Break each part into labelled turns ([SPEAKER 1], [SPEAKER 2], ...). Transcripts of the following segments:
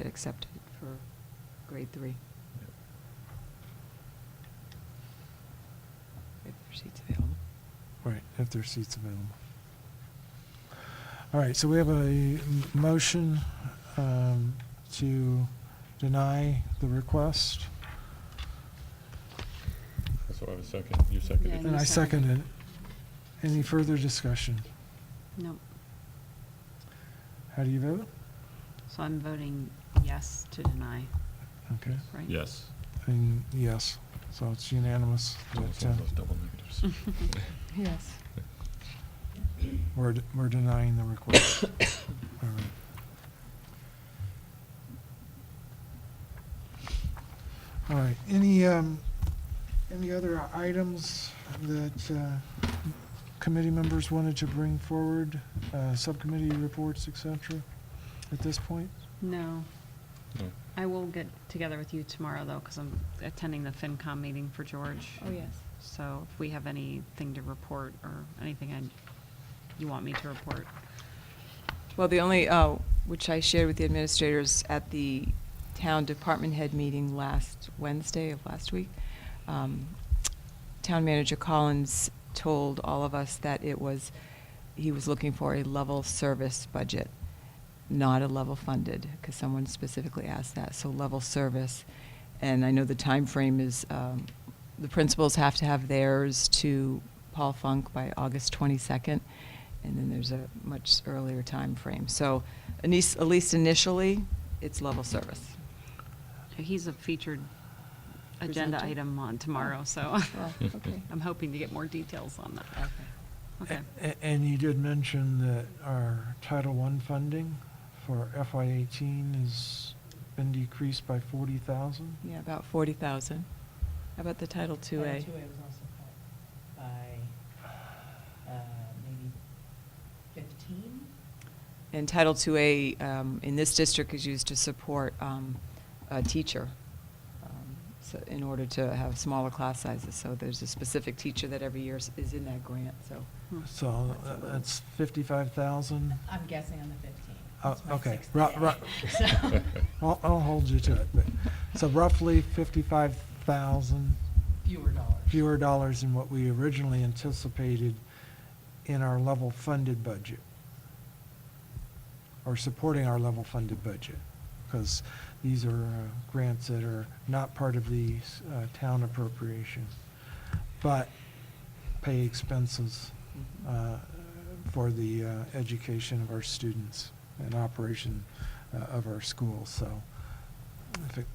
[SPEAKER 1] accepted for grade three. If their seat's available.
[SPEAKER 2] Right, if there are seats available. All right, so we have a m- motion um, to deny the request,
[SPEAKER 3] So I have a second, you seconded
[SPEAKER 4] And
[SPEAKER 2] and
[SPEAKER 4] you
[SPEAKER 2] I
[SPEAKER 3] it.
[SPEAKER 4] second.
[SPEAKER 2] seconded it. Any further discussion?
[SPEAKER 4] No,
[SPEAKER 2] How do you vote?
[SPEAKER 4] so I'm voting yes to deny,
[SPEAKER 2] Okay,
[SPEAKER 4] right?
[SPEAKER 3] Yes.
[SPEAKER 2] and yes, so it's unanimous.
[SPEAKER 3] Almost
[SPEAKER 2] that, uh,
[SPEAKER 3] all those double negatives.
[SPEAKER 1] Yes.
[SPEAKER 2] We're, d- we're denying the request. All right. All right, any, um, any other items that, uh, committee members wanted to bring forward? Uh, subcommittee reports, et cetera, at this point?
[SPEAKER 4] No,
[SPEAKER 3] No.
[SPEAKER 4] I will get together with you tomorrow, though, because I'm attending the FinCom meeting for George.
[SPEAKER 1] Oh, yes.
[SPEAKER 4] So if we have anything to report or anything I, you want me to report,
[SPEAKER 1] Well, the only, uh, which I shared with the administrators at the town department head meeting last Wednesday of last week, um, Town Manager Collins told all of us that it was, he was looking for a level service budget, not a level funded, because someone specifically asked that, so level service. And I know the time frame is, um, the principals have to have theirs to Paul Funk by August 22nd, and then there's a much earlier time frame. So at least at least initially, it's level service.
[SPEAKER 4] he's a featured
[SPEAKER 1] Presenter?
[SPEAKER 4] agenda
[SPEAKER 1] Oh.
[SPEAKER 4] item on tomorrow, so
[SPEAKER 1] Well, okay.
[SPEAKER 4] I'm hoping to get more details on that.
[SPEAKER 1] Okay.
[SPEAKER 4] Okay,
[SPEAKER 2] A- a- And you did mention that our Title I funding for FY eighteen has been decreased by forty thousand?
[SPEAKER 1] Yeah, about 40,000. How about the Title
[SPEAKER 5] Title
[SPEAKER 1] II-A?
[SPEAKER 5] Uh, Two A was also cut by, uh, maybe fifteen?
[SPEAKER 1] And Title II-A um, in this district is used to support um, a teacher um, so in order to have smaller class sizes. So there's a specific teacher that every year is- is in that grant, so.
[SPEAKER 4] Hmm.
[SPEAKER 2] So
[SPEAKER 1] That's a
[SPEAKER 2] uh,
[SPEAKER 1] little-
[SPEAKER 2] that's fifty-five thousand.
[SPEAKER 5] I'm guessing on the fifteen.
[SPEAKER 2] Oh,
[SPEAKER 5] It's my
[SPEAKER 2] okay.
[SPEAKER 5] sixth
[SPEAKER 2] Ru-
[SPEAKER 5] day.
[SPEAKER 2] ru-
[SPEAKER 5] So-
[SPEAKER 2] I'll, I'll hold you to it, but, so roughly fifty-five thousand
[SPEAKER 5] Fewer dollars.
[SPEAKER 2] fewer dollars than what we originally anticipated in our level funded budget. Or supporting our level funded budget, because these are uh, grants that are not part of the uh, town appropriation, but pay expenses uh, for the uh, education of our students and operation uh, of our schools. So if it,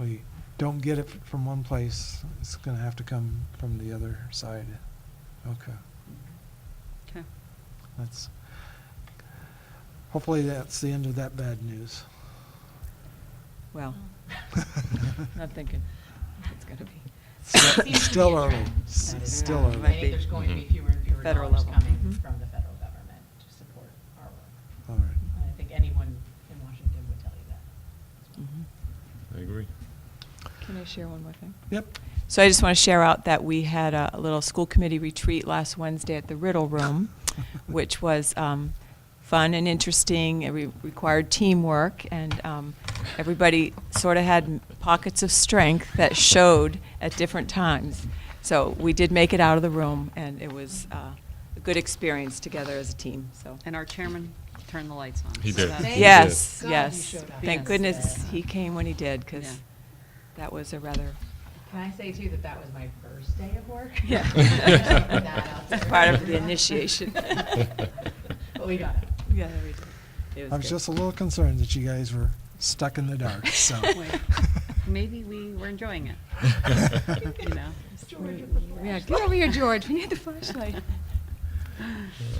[SPEAKER 2] we don't get it f- from one place, it's going to have to come from the other side. Okay,
[SPEAKER 4] okay.
[SPEAKER 2] that's, hopefully that's the end of that bad news.
[SPEAKER 1] Well,
[SPEAKER 2] Oh.
[SPEAKER 1] not thinking Oh. it's going to be.
[SPEAKER 2] Still-
[SPEAKER 5] Seems to be
[SPEAKER 2] Still
[SPEAKER 5] a
[SPEAKER 2] early,
[SPEAKER 5] trend.
[SPEAKER 2] S-
[SPEAKER 5] That is
[SPEAKER 2] still
[SPEAKER 5] a trend.
[SPEAKER 2] early.
[SPEAKER 5] I think there's going to be fewer and fewer
[SPEAKER 1] Mm-hmm. Federal
[SPEAKER 5] dollars
[SPEAKER 1] level.
[SPEAKER 5] coming
[SPEAKER 1] Mhm.
[SPEAKER 5] from the federal government to support our work.
[SPEAKER 2] All right.
[SPEAKER 5] I think anyone in Washington would tell you that.
[SPEAKER 3] I agree.
[SPEAKER 1] Can I share one more thing?
[SPEAKER 2] Yep,
[SPEAKER 1] So I just want to share out that we had a a little school committee retreat last Wednesday at the Riddle Room, which was um, fun and interesting. It re- required teamwork, and um, everybody sort of had pockets of strength that showed at different times. So we did make it out of the room, and it was uh, a good experience together as a team. So
[SPEAKER 4] And our chairman turned the lights on.
[SPEAKER 3] He
[SPEAKER 4] so
[SPEAKER 3] did.
[SPEAKER 4] that's-
[SPEAKER 3] Thank
[SPEAKER 1] yes,
[SPEAKER 5] God you
[SPEAKER 1] yes,
[SPEAKER 5] showed up.
[SPEAKER 1] thank
[SPEAKER 4] Yes.
[SPEAKER 1] goodness
[SPEAKER 5] Yeah.
[SPEAKER 1] he came when he did, because
[SPEAKER 4] Yeah.
[SPEAKER 1] that was a rather
[SPEAKER 5] Can I say too that that was my first day of work?
[SPEAKER 1] Yeah.
[SPEAKER 5] Put that out
[SPEAKER 1] That's
[SPEAKER 5] there.
[SPEAKER 1] part of the initiation.
[SPEAKER 5] But we got it.
[SPEAKER 1] Yeah, we did. It was
[SPEAKER 2] I was
[SPEAKER 1] good.
[SPEAKER 2] just a little concerned that you guys were stuck in the dark, so.
[SPEAKER 4] Wait, Maybe we were enjoying it, you know?
[SPEAKER 5] George,
[SPEAKER 1] Yeah, get over here, George. We need the flashlight.
[SPEAKER 3] Yeah,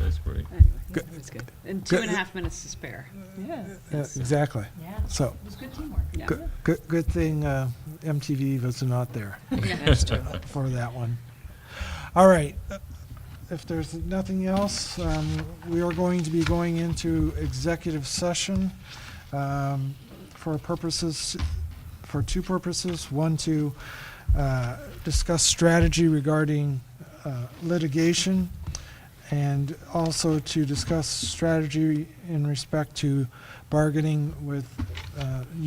[SPEAKER 3] That's great.
[SPEAKER 4] Anyway,
[SPEAKER 2] Good.
[SPEAKER 1] It was good.
[SPEAKER 4] And two and a
[SPEAKER 2] Good.
[SPEAKER 4] half minutes to spare.
[SPEAKER 1] Yeah.
[SPEAKER 2] Yeah, Exactly.
[SPEAKER 5] Yeah.
[SPEAKER 2] So-
[SPEAKER 5] It was good teamwork.
[SPEAKER 4] Yeah.
[SPEAKER 2] Good, good, good thing uh, MTV was not there
[SPEAKER 1] That's true.
[SPEAKER 2] for that one. All right, uh, if there's nothing else, um, we are going to be going into executive session um, for purposes, for two purposes. One, to uh, discuss strategy regarding uh, litigation, and also to discuss strategy in respect to bargaining with uh,